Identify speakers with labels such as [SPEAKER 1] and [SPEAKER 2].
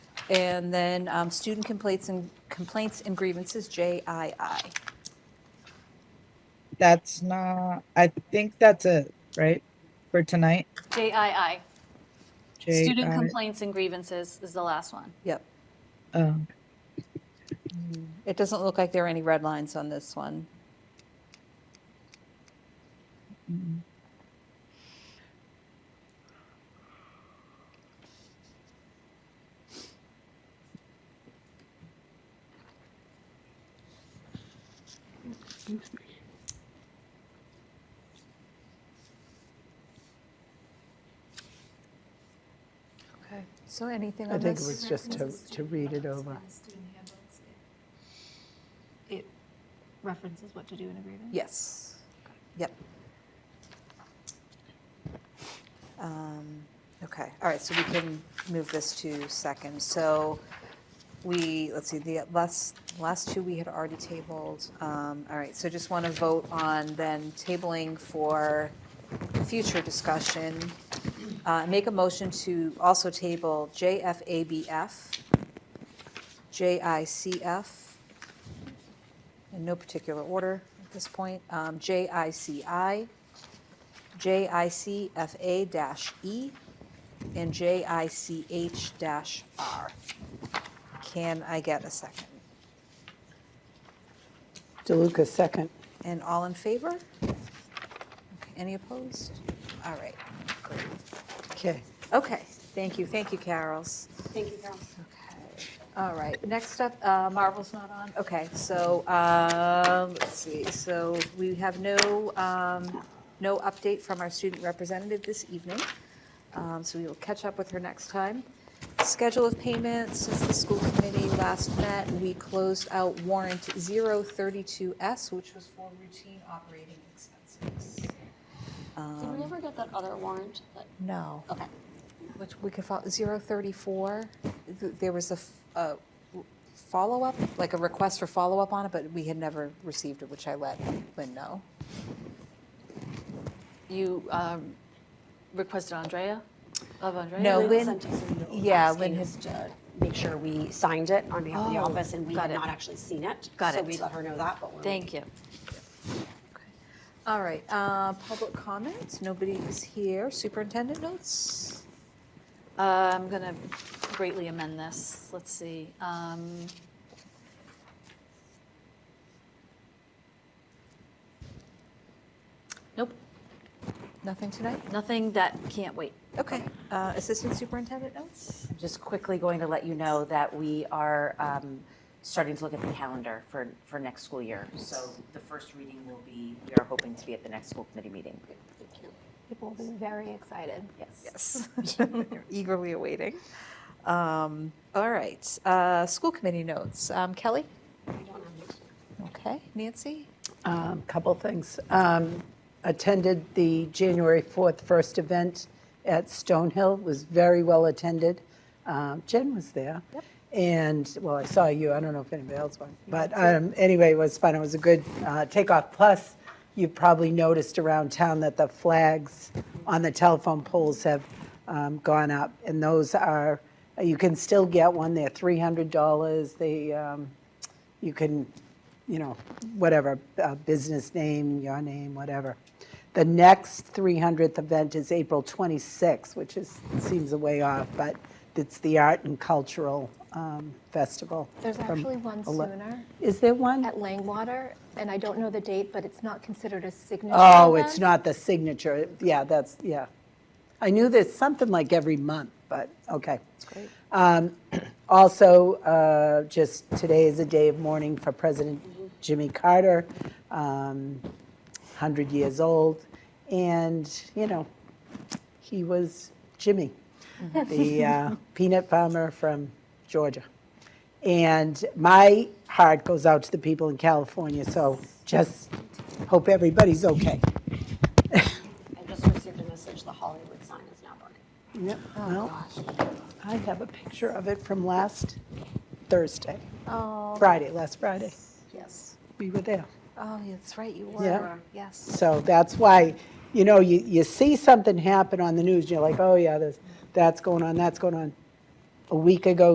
[SPEAKER 1] And then um, student complaints and complaints and grievances, JII.
[SPEAKER 2] That's not, I think that's it, right? For tonight?
[SPEAKER 3] JII,
[SPEAKER 2] J-
[SPEAKER 3] student
[SPEAKER 2] I-
[SPEAKER 3] complaints and grievances is the last one.
[SPEAKER 1] Yep.
[SPEAKER 2] Oh,
[SPEAKER 1] Mm-hmm. It doesn't look like there are any red lines on this one.
[SPEAKER 4] Okay.
[SPEAKER 1] So anything
[SPEAKER 4] I
[SPEAKER 1] on
[SPEAKER 4] think it was
[SPEAKER 1] this?
[SPEAKER 4] just to, to read it over.
[SPEAKER 5] It references what to do in a grievance.
[SPEAKER 1] Yes. Yep. Um, Okay, all right, so we can move this to second. So we, let's see, the last, last two we had already tabled. Um, All right, so just want to vote on then tabling for future discussion. Uh, Make a motion to also table JFABF, JICF, in no particular order at this point, um, JICI, JICFA-E, E, and JICH-R. Can I get a second?
[SPEAKER 4] DeLuca, second.
[SPEAKER 1] And all in favor? Okay, Any opposed? All right, great.
[SPEAKER 4] Okay.
[SPEAKER 1] Okay, thank you, thank you, Carols. Thank you, Carols. All right, next up, uh, Marvel's not on, okay, so, um, let's see, so we have no, um, no update from our student representative this evening, Um, so we will catch up with her next time. Schedule of payments, since the school committee last met, we closed out warrant 032S, which was for routine operating expenses. Um,
[SPEAKER 3] Did we ever get that other warrant? that-
[SPEAKER 1] No.
[SPEAKER 3] Okay.
[SPEAKER 1] Which we could follow, 034, th- there was a f- a w- follow-up, like a request for follow-up on it, but we had never received it, which I let Lynn know.
[SPEAKER 3] You um, requested Andrea, of Andrea?
[SPEAKER 1] No, Lynn-
[SPEAKER 6] sent us a note
[SPEAKER 1] yeah, Lynn
[SPEAKER 6] asking us to make sure we signed it on behalf of the
[SPEAKER 3] Oh,
[SPEAKER 6] office, and we
[SPEAKER 3] got
[SPEAKER 6] had
[SPEAKER 3] it.
[SPEAKER 6] not actually seen it.
[SPEAKER 3] Got
[SPEAKER 6] So
[SPEAKER 3] it.
[SPEAKER 6] we let her know that, but we're.
[SPEAKER 3] Thank you.
[SPEAKER 1] All right, uh, public comments, nobody is here. Superintendent notes?
[SPEAKER 3] Uh, I'm going to greatly amend this. Let's see. um, Nope,
[SPEAKER 1] Nothing tonight?
[SPEAKER 3] nothing that can't wait.
[SPEAKER 1] Okay, uh, Assistant Superintendent notes?
[SPEAKER 7] I'm just quickly going to let you know that we are um, starting to look at the calendar for, for next school year. So the first reading will be, we are hoping to be at the next school committee meeting.
[SPEAKER 5] People will be very excited.
[SPEAKER 7] Yes.
[SPEAKER 1] Yes. Eagerly awaiting. Um, All right, uh, school committee notes. Um, Kelly? Okay, Nancy?
[SPEAKER 4] Um, Couple things. Um, Attended the January 4th first event at Stonehill, was very well attended. Um, Jen was there. And, well, I saw you, I don't know if anybody else went. But um, anyway, it was fun, it was a good uh, takeoff. Plus, you've probably noticed around town that the flags on the telephone poles have um, gone up. And those are, you can still get one, they're $300. They, um, you can, you know, whatever, uh, business name, your name, whatever. The next 300th event is April 26th, which is, seems a way off, but it's the Art and Cultural um, Festival.
[SPEAKER 5] There's
[SPEAKER 4] from
[SPEAKER 5] actually one
[SPEAKER 4] ele-
[SPEAKER 5] sooner
[SPEAKER 4] Is there one?
[SPEAKER 5] at Langwater, and I don't know the date, but it's not considered a signature.
[SPEAKER 4] Oh,
[SPEAKER 5] event.
[SPEAKER 4] it's not the signature. Yeah, that's, yeah. I knew there's something like every month, but, okay. Um, Also, uh, just today is a day of mourning for President Jimmy Carter, um, 100 years old, and, you know, he was Jimmy, the uh, peanut farmer from Georgia. And my heart goes out to the people in California, so just hope everybody's okay.
[SPEAKER 6] I just received a message, the Hollywood sign is now burning.
[SPEAKER 4] Yep, well, I have a picture of it from last Thursday,
[SPEAKER 1] Oh,
[SPEAKER 4] Friday, last Friday.
[SPEAKER 1] yes.
[SPEAKER 4] We were there.
[SPEAKER 1] Oh, yeah, that's right, you
[SPEAKER 4] Yeah.
[SPEAKER 1] were. Yes.
[SPEAKER 4] So that's why, you know, you, you see something happen on the news, and you're like, oh, yeah, there's, that's going on, that's going on. A week ago,